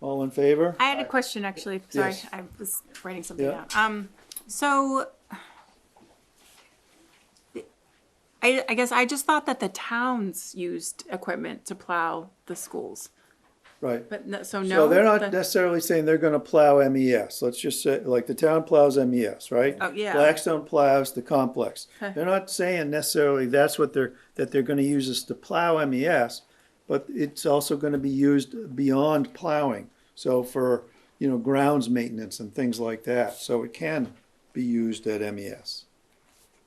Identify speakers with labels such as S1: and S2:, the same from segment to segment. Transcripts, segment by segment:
S1: All in favor?
S2: I had a question, actually. Sorry,
S1: Yes.
S2: I was writing something
S1: Yeah.
S2: down. Um, so I, I guess I just thought that the towns used equipment to plow the schools,
S1: Right.
S2: but no, so no.
S1: So they're
S2: the-
S1: not necessarily saying they're gonna plow MES. Let's just say, like, the town plows MES, right?
S2: Oh, yeah.
S1: Blackstone plows the complex.
S2: Okay.
S1: They're not saying necessarily that's what they're, that they're gonna use us to plow MES, but it's also gonna be used beyond plowing. So for, you know, grounds maintenance and things like that. So it can be used at E MES.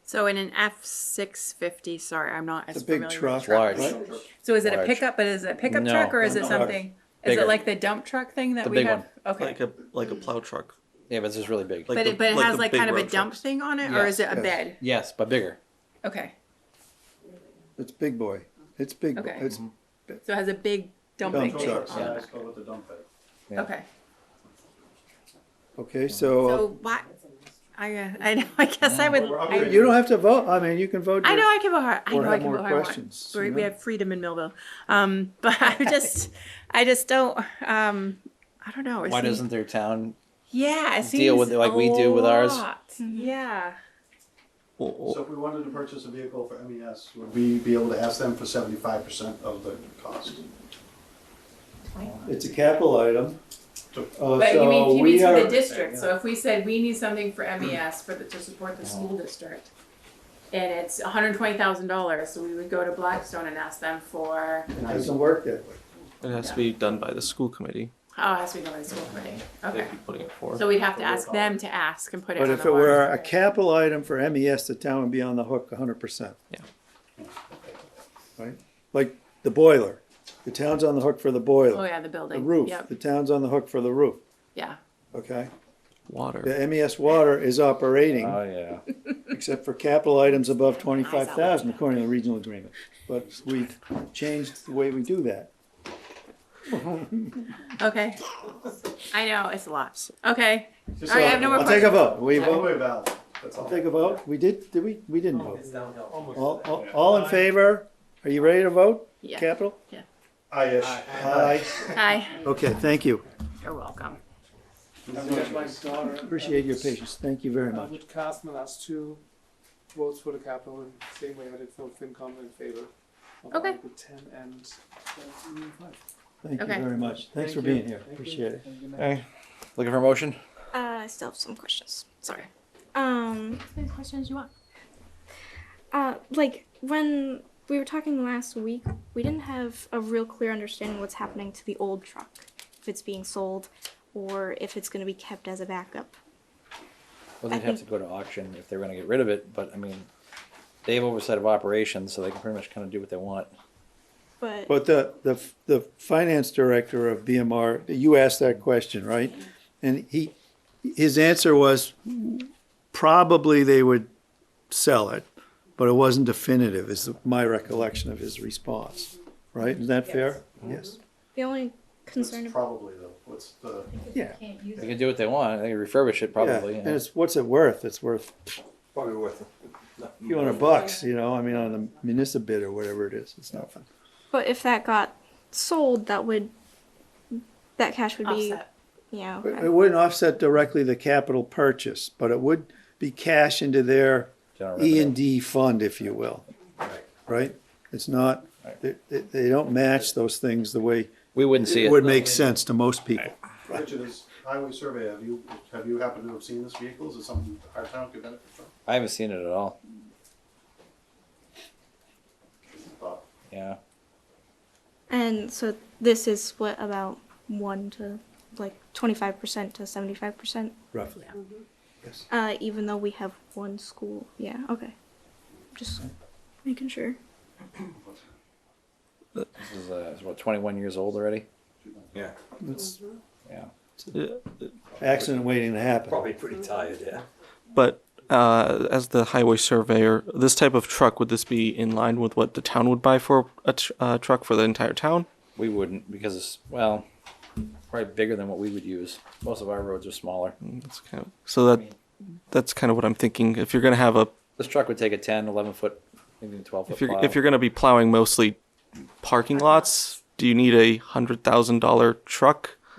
S2: So in an F six fifty, sorry, I'm not as
S1: It's a big
S2: familiar
S1: truck.
S2: with
S3: large.
S1: right?
S2: So is it a
S3: Large.
S2: pickup, but is it a pickup
S3: No,
S2: truck or is it
S1: no.
S2: something? Is
S3: Bigger.
S2: it like the dump truck thing that
S3: The
S2: we
S3: big
S2: have?
S3: one.
S2: Okay.
S4: Like a, like a plow truck.
S3: Yeah, but this is really big.
S2: But
S4: the-
S2: it, but it has
S4: the
S2: like
S4: big
S2: kind of a
S4: road
S2: dump
S4: trucks.
S2: thing on it or is
S3: Yes.
S2: it a
S1: Yes.
S2: bed?
S3: yes, but bigger.
S2: Okay.
S1: It's big boy. It's big, boy.
S2: Okay.
S1: it's
S2: So it has a big dumping
S1: dump
S2: thing
S1: trucks.
S2: on it.
S3: Yeah.
S2: Okay.
S1: Okay, so. uh,
S2: So why, I, uh, I know, I guess I would,
S1: But
S2: I
S1: You don't have to vote. I mean, you can vote.
S2: I
S1: your-
S2: know I can vote hard, I
S1: Or
S2: know I
S1: have
S2: can
S1: more
S2: vote hard one.
S1: questions,
S2: We,
S1: you
S2: we
S1: know?
S2: have freedom in Millville, um, but I just, I just don't, um, I don't know. it
S3: Why
S2: seems-
S3: doesn't their town?
S2: Yeah, it
S3: deal with
S2: seems
S3: it like
S2: a
S3: we do with ours?
S2: lot. Yeah,
S4: Well, well,
S5: So if we wanted to purchase a vehicle for MES, would we be able to ask them for seventy-five percent of the cost?
S1: It's a capital item. Uh,
S2: but you
S1: so
S2: mean, you mean
S1: we
S2: for the
S1: are,
S2: district, so if we said we need something for MES for the, to support the school district, and it's hundred and twenty thousand dollars, so we would go to Blackstone and ask them for,
S1: it doesn't work that way.
S4: it has to be done by the school committee.
S2: oh, it has to be done by the school committee, okay.
S4: They'd be putting it for.
S2: So we'd have to ask them to ask and put it on
S1: But
S2: the
S1: if it were a capital item for MES, the town would be on the hook hundred percent.
S4: Yeah.
S1: Right? Like the boiler. The town's on the hook for the boiler.
S2: Oh, yeah, the
S1: The
S2: building.
S1: roof,
S2: Yep,
S1: the town's on the hook for the roof,
S2: yeah.
S1: okay?
S4: water.
S1: The MES water is operating,
S3: yeah.
S1: except for capital items above twenty-five thousand according to the regional agreement. But we've changed the way we do that.
S2: Okay. I know, it's a lot. Okay.
S5: Just
S2: All right, I have
S5: so-
S2: no more
S1: I'll take a vote. We
S5: Take
S1: vote,
S5: away valve, that's all.
S1: take a vote. We did, did we? We didn't vote.
S6: It's downhill.
S1: All, all- all in favor? Are you ready to vote?
S2: Yeah.
S1: Capital?
S5: Aye-ish.
S1: Aye.
S2: Hi,
S1: Okay, thank you.
S2: you're welcome.
S6: My daughter.
S1: Appreciate your patience. Thank you very
S6: I
S1: much.
S6: would cast my last two votes for the capital and same way I did for FinCom in favor of
S2: Okay.
S6: Article ten and uh, five.
S1: Thank you
S2: Okay.
S1: very much. Thanks for
S6: Thank you.
S1: being here.
S6: Thank you.
S1: Appreciate it.
S6: Have a good night.
S3: Hey, looking for a motion?
S7: Uh, I still have some questions. Sorry.
S2: Sorry.
S7: Um,
S2: Any questions you want?
S7: uh, like when we were talking last week, we didn't have a real clear understanding what's happening to the old truck, if it's being sold, or if it's going to be kept as a backup.
S3: Well,
S7: I
S3: they'd have to
S7: think-
S3: go to auction if they were gonna get rid of it, but I mean, they have oversight of operations, so they can pretty much kinda do what they want.
S7: But,
S1: But the, the, the finance director of BMR, you asked that question, right? And he, his answer was probably they would sell it, but it wasn't definitive is my recollection of his response, right? Is that fair?
S2: Mm-hmm.
S1: Yes.
S7: the only
S5: That's
S7: concern about
S5: Probably the, what's the,
S1: Yeah.
S3: They can do what they want, they can refurbish it probably.
S1: Yeah, And
S3: yeah.
S1: it's, what's it worth? It's worth
S8: Probably worth it.
S1: a few hundred bucks, you know, I mean, on the municipal bid or whatever it is, it's nothing.
S7: but if that got sold, that would that cash would be
S2: Offset.
S7: you know
S1: It it wouldn't offset directly the capital purchase, but it would be cash into their
S3: General
S1: E
S3: revenue.
S1: and D fund, if you will. Right? It's not, they, they- they don't match those things the way
S3: We wouldn't see
S1: it
S3: it.
S1: would make sense to most people.
S5: Richard, is highway survey, have you, have you happened to have seen this vehicle? Is it something our town could benefit from?
S3: I haven't seen it at all,
S5: Thought.
S3: yeah.
S7: and so this is split about one to like twenty five percent to seventy five percent. Mm-hmm.
S1: Roughly.
S7: Uh, even though we have one school. Yeah, okay. Just making sure.
S3: This is, uh, it's what, twenty-one years old already?
S8: Yeah,
S1: It's
S3: Yeah.
S1: accident waiting to happen.
S8: probably pretty tired, yeah.
S4: But uh, as the highway surveyor, this type of truck would this be in line with what the town would buy for a tr- uh, truck for the entire town?
S3: We wouldn't, because it's, well, probably bigger than what we would use. Most of our roads are smaller.
S4: Mm, That's kind of so that that's kind of what I'm thinking. If you're gonna have a
S3: This truck would take a 10, 11 foot, maybe twelve foot
S4: if you're
S3: plow.
S4: if you're gonna be plowing mostly parking lots, do you need a hundred thousand dollar truck?